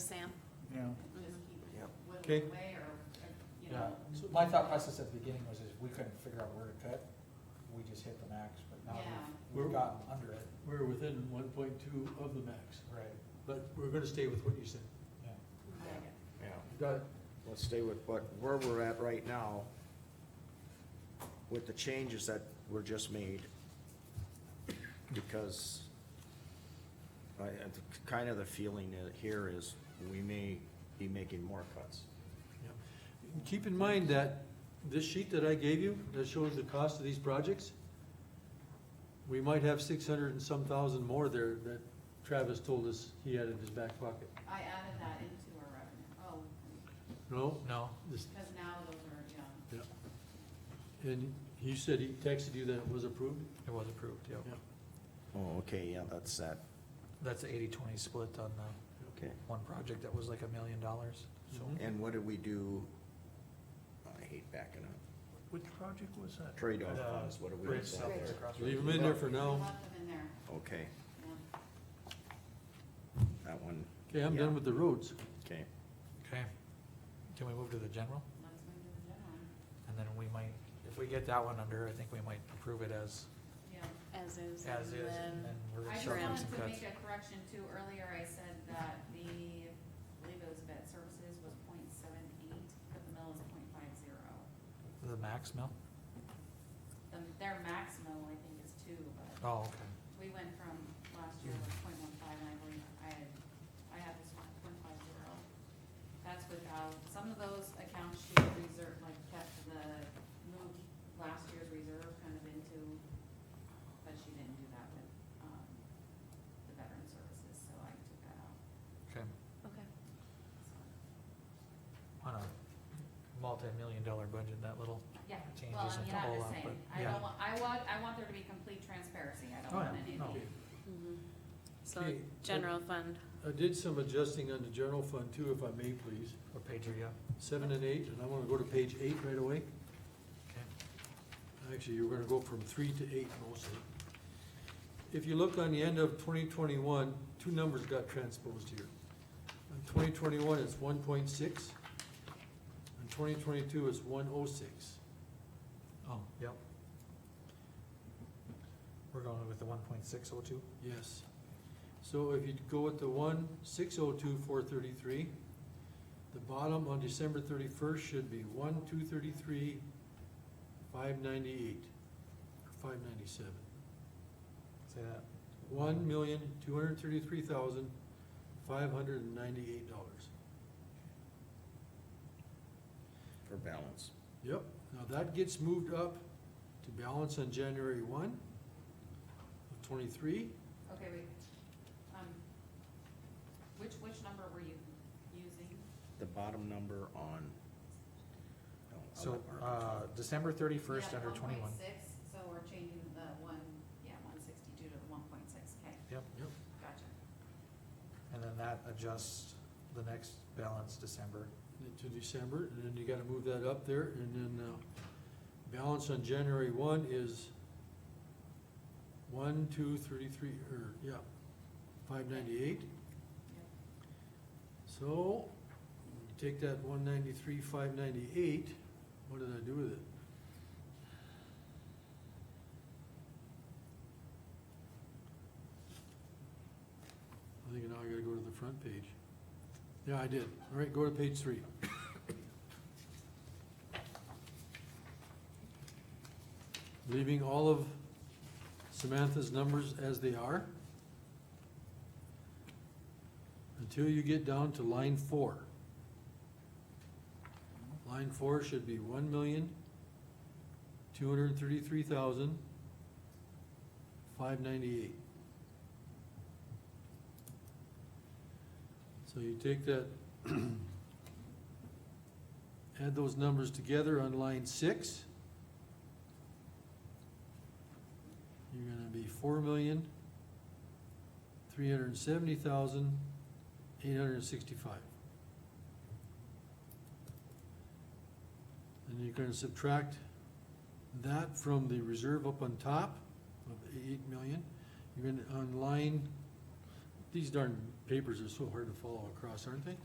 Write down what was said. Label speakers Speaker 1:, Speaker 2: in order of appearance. Speaker 1: Yeah.
Speaker 2: just keep
Speaker 3: Yeah.
Speaker 1: Okay.
Speaker 2: whittling away or, or, you
Speaker 4: Yeah,
Speaker 2: know.
Speaker 4: so my thought process at the beginning was if we couldn't figure out where to cut, we just hit the max, but now we've, we've
Speaker 5: We're-
Speaker 4: gotten under it.
Speaker 5: We're within one point two of the max,
Speaker 4: Right.
Speaker 5: but we're gonna stay with what you said.
Speaker 4: Yeah.
Speaker 3: Yeah,
Speaker 5: Got it.
Speaker 3: let's stay with what, where we're at right now with the changes that were just made. Because I, and kind of the feeling that here is we may be making more cuts.
Speaker 5: Yep. Keep in mind that this sheet that I gave you, that shows the cost of these projects, we might have six hundred and some thousand more there that Travis told us he had in his back pocket.
Speaker 2: I added that into our revenue, oh,
Speaker 5: No?
Speaker 4: No.
Speaker 5: This-
Speaker 2: because now those are, you know,
Speaker 5: yeah. And he said he texted you that it was approved?
Speaker 4: It was approved, yeah.
Speaker 5: Yeah.
Speaker 3: Oh, okay, yeah, that's that,
Speaker 4: That's the 80-20 split on the
Speaker 3: okay.
Speaker 4: one project that was like a million dollars, so.
Speaker 5: Mhm.
Speaker 3: And what did we do? I hate backing up.
Speaker 6: Which project was that?
Speaker 3: Trade-off funds, what do we
Speaker 4: uh, Bridge
Speaker 3: do
Speaker 4: south
Speaker 3: there?
Speaker 4: across
Speaker 5: Leave
Speaker 4: from-
Speaker 5: them in there for
Speaker 2: we
Speaker 5: now.
Speaker 2: left them in there,
Speaker 3: Okay,
Speaker 2: yeah.
Speaker 3: that one,
Speaker 5: Okay, I'm done with the roads.
Speaker 3: okay.
Speaker 4: Okay, can we move to the general?
Speaker 2: Let's move to the general,
Speaker 4: And then we might, if we get that one under, I think we might approve it as,
Speaker 2: yeah.
Speaker 7: As is.
Speaker 4: as is,
Speaker 7: and
Speaker 4: and then
Speaker 7: then-
Speaker 4: we're
Speaker 2: I
Speaker 4: gonna
Speaker 2: just
Speaker 4: start doing
Speaker 2: wanted
Speaker 4: some
Speaker 2: to
Speaker 4: cuts.
Speaker 2: make a correction too, earlier I said that the, I believe it was vet services was point seven eight, but the mill is point five zero.
Speaker 4: The max mill?
Speaker 2: The, Um, their max mill, I think, is two, but
Speaker 4: Oh, okay.
Speaker 2: we went from last year was point one five, and I believe I had, I had this one, point five zero. That's without, some of those accounts she reserved, like kept the, moved last year's reserve kind of into, but she didn't do that with, um, the veteran services, so I took that out.
Speaker 4: Okay,
Speaker 7: Okay.
Speaker 2: So,
Speaker 4: on a multi-million dollar budget, that little,
Speaker 2: Yeah,
Speaker 4: Change
Speaker 2: well, I
Speaker 4: isn't
Speaker 2: mean,
Speaker 4: a
Speaker 2: I'm
Speaker 4: whole
Speaker 2: just
Speaker 4: lot,
Speaker 2: saying,
Speaker 4: but
Speaker 2: I
Speaker 4: yeah.
Speaker 2: don't want, I want, I want there to be complete transparency, I don't
Speaker 4: Oh,
Speaker 2: want
Speaker 4: yeah,
Speaker 2: anything.
Speaker 4: no.
Speaker 7: Mhm. So
Speaker 5: Okay.
Speaker 7: general fund,
Speaker 5: I did some adjusting on the general fund too, if I may please.
Speaker 4: what page are you on?
Speaker 5: Seven and eight, and I wanna go to page eight right away.
Speaker 4: Okay.
Speaker 5: Actually, you're gonna go from three to eight mostly. If you look on the end of twenty twenty-one, two numbers got transposed here. On twenty twenty-one, it's one point six, and twenty twenty-two is one oh six.
Speaker 4: Oh, yep. We're going with the one point six oh two?
Speaker 5: Yes. So if you go with the one, six oh two, four thirty-three, the bottom on December thirty-first should be one, two thirty-three, five ninety-eight, or five ninety-seven.
Speaker 4: Say that.
Speaker 5: One million, two hundred thirty-three thousand, five hundred and ninety-eight dollars.
Speaker 3: For balance.
Speaker 5: Yep, now that gets moved up to balance on January one of twenty-three,
Speaker 2: Okay, wait, um, which, which number were you using?
Speaker 3: the bottom number on. no, I'll
Speaker 4: So,
Speaker 3: let Mark-
Speaker 4: uh, December thirty-first
Speaker 2: Yeah, oh
Speaker 4: under twenty-one.
Speaker 2: 1.6, so we're changing the one, yeah, one sixty-two to one point six K,
Speaker 4: Yep,
Speaker 5: yep,
Speaker 2: gotcha.
Speaker 4: and then that adjusts the next balance December.
Speaker 5: to December, and then you gotta move that up there, and then, uh, balance on January one is one, two, thirty-three, or, yeah, five ninety-eight.
Speaker 2: Yep.
Speaker 5: So, you take that one ninety-three, five ninety-eight, what did I do with it? I think now I gotta go to the front page. Yeah, I did. All right, go to page three. Leaving all of Samantha's numbers as they are. Until you get down to line four. Line four should be one million, two hundred and thirty-three thousand, five ninety-eight. So you take that, add those numbers together on line six. You're gonna be four million, three hundred and seventy thousand, eight hundred and sixty-five. And you're gonna subtract that from the reserve up on top of eight million. You're gonna, on line, these darn papers are so hard to follow across, aren't they?